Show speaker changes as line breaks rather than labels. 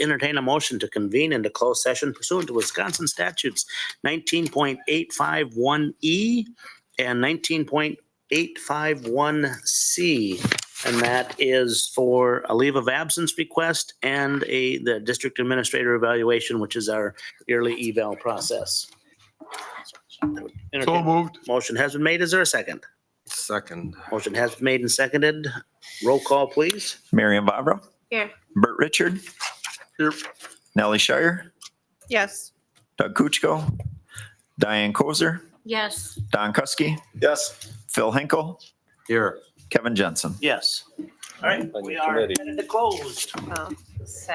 entertain a motion to convene into closed session pursuant to Wisconsin statutes nineteen point eight five one E and nineteen point eight five one C. And that is for a leave of absence request and a, the district administrator evaluation, which is our yearly eval process.
So
Entertain-
moved.
Motion has been made. Is there a second?
Second.
Motion has been made and seconded. Roll call, please.
Marion Vavra.
Here.
Bert Richard.
Here.
Nellie Shire.
Yes.
Doug Kuchko. Diane Kozer.
Yes.
Don Kuski.
Yes.
Phil Henkel.
Here.
Kevin Jensen.
Yes. All right, we are
Committee.
closed.
Oh, sad.